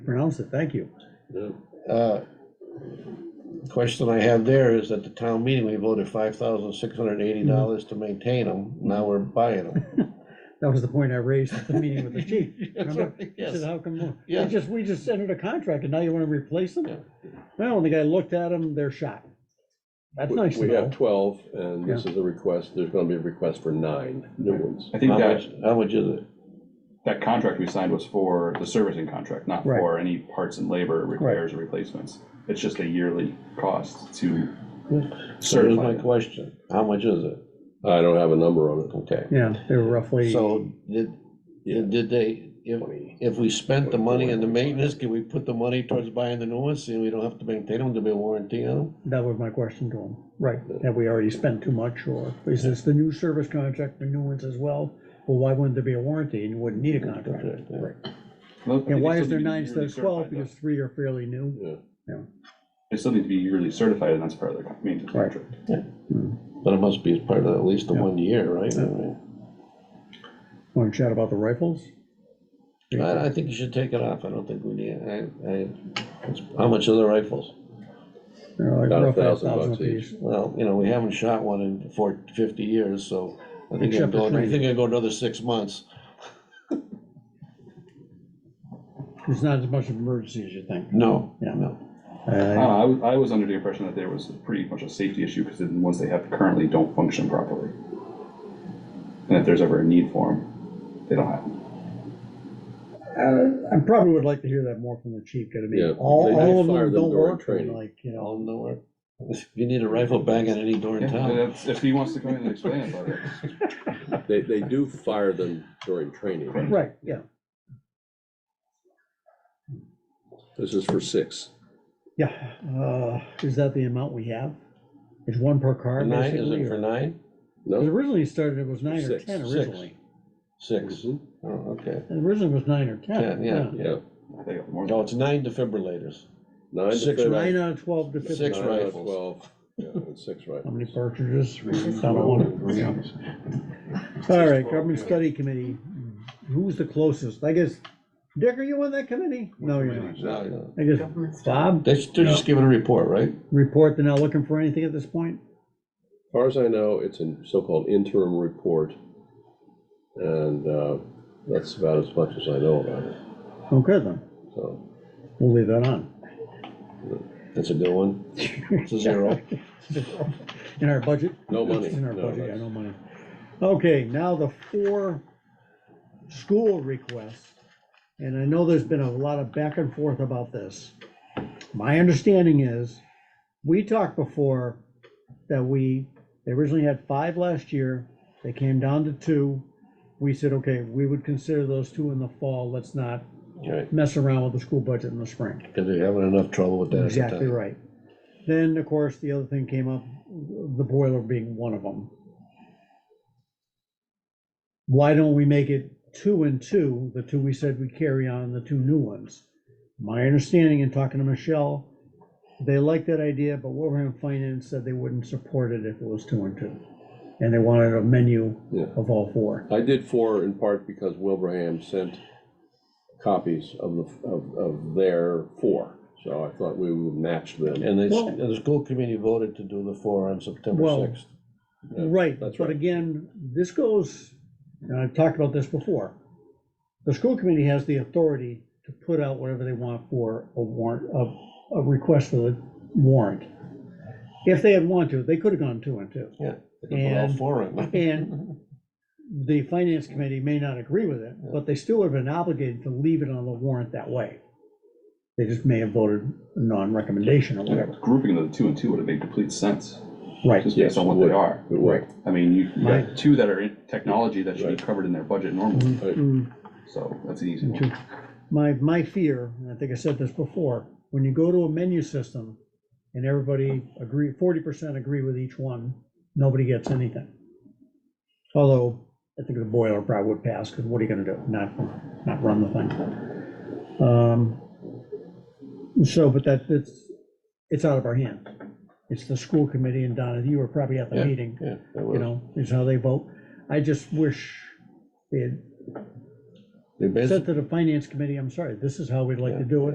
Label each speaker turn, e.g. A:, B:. A: pronounced it, thank you.
B: Yeah.
C: Uh, Question I have there is at the town meeting, we voted five thousand six hundred and
A: Mm-hmm.
C: eighty dollars to maintain them. Now we're buying them.
A: That was the point I raised at the meeting with the chief.
C: That's
A: Remember?
C: right,
A: He said,
C: yes.
A: how come, more?"
C: Yeah.
A: It's just, we just entered a contract and now you want to replace them?
C: Yeah.
A: Well, and the guy looked at them, they're shot. That's
B: We-
A: nice to
B: We have
A: know.
B: twelve, and this is a request, there's gonna be a request for nine new ones.
D: I think
C: How
D: that,
C: much, how much is it?
D: that contract we signed was for the servicing contract, not
A: Right.
D: for any parts and labor repairs or replacements. It's just a yearly cost to
C: So here's my
D: certify. them.
C: question. How much is it?
B: I don't have a number on it.
C: Okay.
A: Yeah, they were roughly,
C: So did,
B: Yeah.
C: did they, if,
B: Twenty.
C: if we spent the money in the maintenance, can we put the money towards buying the new ones? See, we don't have to maintain them, to be a warranty on them?
A: that was my question to him. Right, have we already spent too much or is this the new service contract, the new ones as well? Well, why wouldn't there be a warranty and you wouldn't need a contract?
C: Contract, yeah.
A: Right.
D: Well, they
A: And why
D: still
A: is there
D: need to be
A: nine instead
D: yearly
A: of twelve?
D: certified, though.
A: Because three are fairly new.
B: Yeah.
D: They still need to be yearly certified, and that's part of their con- maintenance
A: Right.
D: contract.
C: But it must be part of at least the
A: Yeah.
C: one year, right? I
A: Yeah.
C: mean,
A: Want to chat about the rifles?
C: I, I think you should take it off. I don't think we need, I, I, how much are the rifles?
A: They're like
B: About a
A: roughly
B: thousand bucks
A: apiece.
C: Well, you know, we haven't shot one in four, fifty years, so I think I'm
A: Except for
C: going, I
A: training.
C: think I go another six months.
A: It's not as much of an emergency as you think.
C: No,
A: Yeah.
C: no.
D: I
A: Uh,
D: don't know, I was, I was under the impression that there was pretty much a safety issue, because the ones they have currently don't function properly. And if there's ever a need for them, they don't have them.
A: I probably would like to hear that more from the chief, 'cause I
B: Yeah,
A: mean, all,
B: they-
A: all of
B: they fire
A: them
B: them
A: don't
B: during
A: work, and
B: training.
A: like, you know,
C: All nowhere. If you need a rifle bang at any door in
D: Yeah,
C: town,
D: that's- if he wants to come in and explain about it.
B: They, they do fire them during training.
A: right, yeah,
B: This is for six.
A: yeah. Uh, Is that the amount we have? It's one per car,
C: nine, is
A: basically?
C: it for
A: or-
C: nine?
A: Because
B: No?
A: originally it started, it was nine or
B: Six,
A: ten
C: six.
A: originally.
C: Six. Oh, okay.
A: And Originally it was nine or
C: Ten,
A: ten,
C: yeah.
A: Mhm. yeah.
B: Mm-hmm. Yeah.
D: I think more than-
C: No, it's nine defibrillators.
B: Nine to
C: Six,
B: fif-
A: Nine out of twelve to
C: Six
A: fifteen.
B: nine to
C: rifles.
B: Twelve, yeah, and six
A: How
B: rifles.
A: many cartridges? Down to one. All right, government study committee, who's the closest? I guess, Dick, are you on that committee? No, you're not.
C: No, no.
A: I guess, Bob,
C: They should just give it a report, right?
A: report, they're not looking for anything at this point?
B: As far as I know, it's a so-called interim report, and uh, that's about as much as I know about it,
A: Okay, then,
B: so.
A: we'll leave that on.
C: That's a good one. It's a zero.
A: In our budget?
B: No money.
A: It's in our
B: No,
A: budget, yeah,
B: that's-
A: no money. Okay, now the four school requests, and I know there's been a lot of back and forth about this. My understanding is, we talked before that we, they originally had five last year, they came down to two. We said, okay, we would consider those two in the fall, let's not
C: Right,
A: mess around with the school budget in the spring.
C: because we're having enough trouble with that. at the
A: Exactly
C: time.
A: right. Then, of course, the other thing came up, the boiler being one of them. Why don't we make it two and two, the two we said we carry on, the two new ones? My understanding in talking to Michelle, they liked that idea, but Wilbraham Finance said they wouldn't support it if it was two and two. And they wanted a menu
B: Yeah.
A: of all four.
B: I did four in part because Wilbraham sent copies of the, of, of their four, so I thought we would match them.
C: And they,
A: Well-
C: and the school committee voted to do the four on
A: Well-
C: September sixth.
B: Yeah,
A: Right,
B: that's
A: but
B: right.
A: again, this goes, and I've talked about this before. The school committee has the authority to put out whatever they want for a warrant, a, a request for the warrant. If they had wanted to, they could have gone two and two.
C: Yeah. They could put all
A: And-
C: four in.
A: And the finance committee may not agree with it, but they still have been obligated to leave it on the warrant that way. They just may have voted non-recommendation or whatever.
D: Grouping the two and two would have made complete sense,
A: Right,
D: just based on what they are.
B: It would.
D: I mean, you you
A: Right.
D: got two that are in technology that should be covered in their budget normally,
B: Right.
A: Mm.
D: so that's an easy
A: Me too.
D: one.
A: My, my fear, and I think I said this before, when you go to a menu system and everybody agree, forty percent agree with each one, nobody gets anything. Although, I think the boiler probably would pass, because what are you gonna do? Not, not run the thing. Um, So, but that, it's, it's out of our hand. It's the school committee, and Donna, you were probably at the
C: Yeah,
A: meeting
C: Yeah, that
A: you
C: was,
A: know, is how they vote. I just wish they had
C: they basically
A: said to the finance committee, I'm sorry, this is how we'd like to do it.